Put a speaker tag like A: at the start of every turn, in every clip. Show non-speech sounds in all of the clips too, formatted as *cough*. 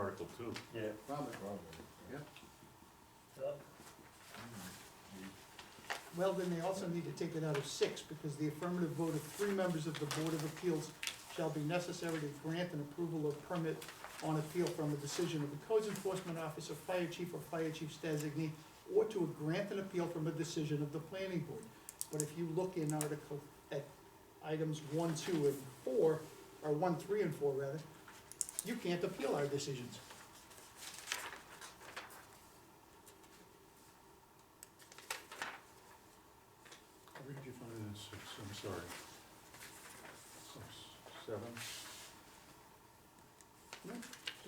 A: Article two.
B: Yeah,
C: Probably.
D: Well, then they also need to take it out of six, because the affirmative vote of three members of the Board of Appeals shall be necessary to grant an approval of permit on appeal from a decision of the codes enforcement officer, fire chief, or fire chief's designee, or to grant an appeal from a decision of the planning board. But if you look in article, at items one, two, and four, or one, three, and four, rather, you can't appeal our decisions.
A: Where did you find that six, I'm sorry? Six, seven?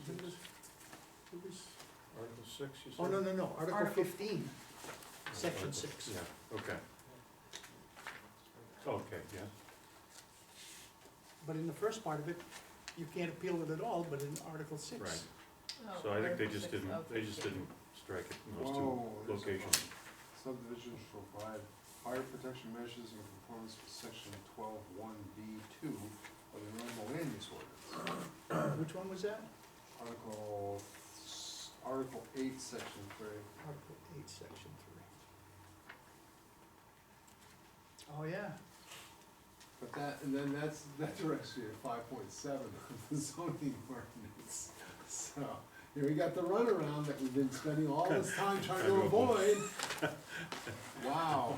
D: Isn't this-
A: It was Article six, you said?
D: Oh, no, no, no, article
E: Article-
D: fifteen, section
A: Article-
D: six. Oh.
A: Yeah, okay, okay, yeah.
D: But in the first part of it, you can't appeal it at all, but in Article six, Oh,
A: So
E: Oh,
A: I think they just didn't, they just didn't strike it in those two
C: Whoa, there's a
A: locations.
C: Subdivision shall provide fire protection measures in conformance with section twelve one B two of the Illinois Land Use Ordinance.
D: *clears throat* which one was that?
C: Article, s- Article eight, section three.
D: Article eight, section three. Oh, yeah,
C: But that, and then that's, that's actually at five point seven of the zoning *laughs* ordinance. So, here we got the runaround that we've been spending all this time
A: *laughs*
C: trying to avoid. Wow.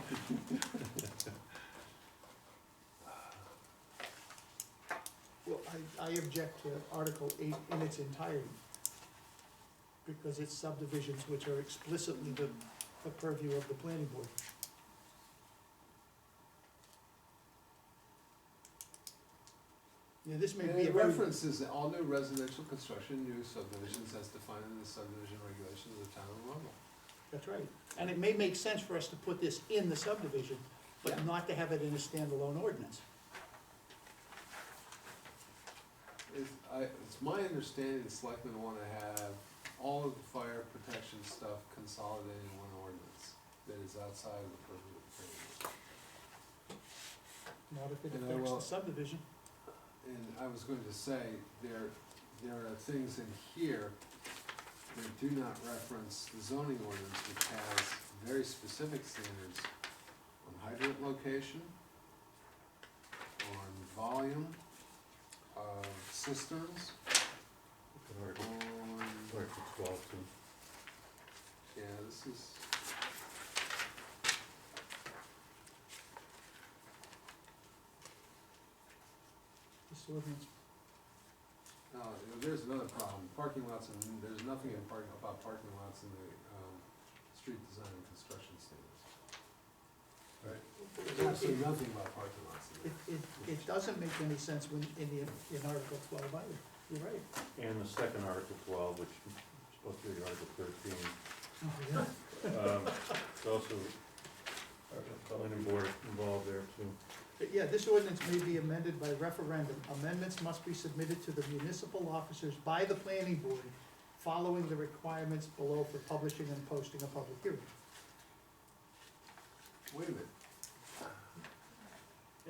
D: well, I, I object to Article eight in its entirety. Because it's subdivisions which are explicitly the, the purview of the planning board. Yeah, this may
C: And
D: be a
C: it
D: very.
C: references all new residential construction, new subdivisions as defined in the subdivision regulations of the town of Arundel.
D: That's right, and it may make sense for us to put this in the subdivision,
C: Yeah.
D: but not to have it in a standalone ordinance.
C: It's, I, it's my understanding the selectmen wanna have all of the fire protection stuff consolidated in one ordinance that is outside of the purview of the planning board.
D: Not if it
C: And I
D: affects the
C: will-
D: subdivision,
C: And I was going to say, there, there are things in here that do not reference the zoning ordinance, which has very specific standards on hydrant location, on volume of cisterns,
A: Article,
C: on,
A: Article twelve too.
C: yeah, this is.
D: this ordinance,
C: No, there's another problem, parking lots, and there's nothing in park, about parking lots in the, um, street design and construction standards. There's absolutely
D: it,
C: nothing about parking lots in there.
D: it, it doesn't make any sense when, in the, in Article twelve either, you're right.
A: And the second Article twelve, which is supposed to be Article thirteen,
D: Oh, *laughs* yeah.
A: um, it's also, planning board involved there too.
D: But Yeah, this ordinance may be amended by referendum. Amendments must be submitted to the municipal officers by the planning board, following the requirements below for publishing and posting a public hearing.
C: Wait a minute,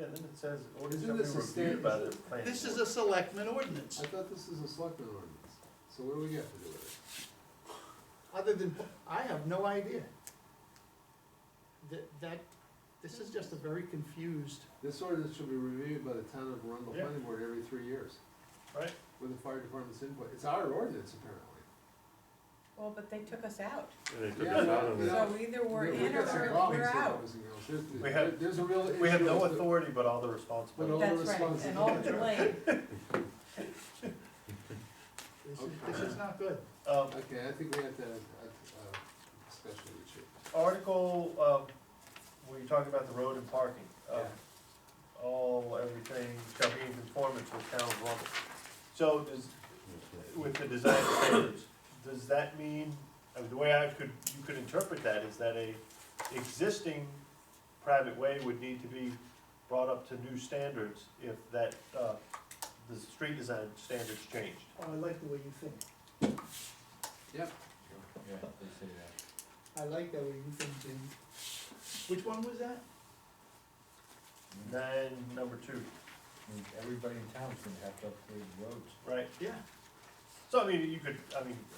B: yeah, then it says, ordinance
C: Isn't
B: shall be
C: this a
B: reviewed
C: sta-
B: by the planning
D: This is
B: board.
D: a selectman ordinance.
C: I thought this is a selectman ordinance, so what do we get to do with it?
D: Other than, I have no idea. That, that, this is just a very confused,
C: This ordinance should be reviewed by the town of Arundel
B: Yeah.
C: Planning Board every three years,
B: Right,
C: with the fire department's input, it's our ordinance apparently.
E: Well, but they took us out,
A: And they took
C: Yeah,
A: us out of
C: yeah.
A: that.
E: so either we're
C: We- we
E: in
C: got some
E: or
C: problems
E: we're
C: here,
E: out.
C: boys and girls. There's-
B: We have-
C: There's a real issue.
B: we have no
C: with the-
B: authority but all the
C: But all
B: responsibility.
C: the
E: That's right, and all the blame.
D: this is, this is not good.
B: Um,
C: Okay, I think we have to, have a- a discussion with you.
B: Article, um, where you're talking about the road and parking, um,
C: Yeah.
B: all, everything shall be in conformance with town of Arundel. So does, with the design standards, does that mean, I mean, the way I could, you could interpret that is that a existing private way would need to be brought up to new standards if that, uh, the street design standards changed.
D: Oh, I like the way you think.
C: Yep,
F: Yeah, they say that.
D: I like the way you think, Jim. Which one was that?
B: Then, number two,
F: I mean, Everybody in town's gonna have to upgrade roads.
B: right?
D: Yeah.
B: So I mean, you could, I mean,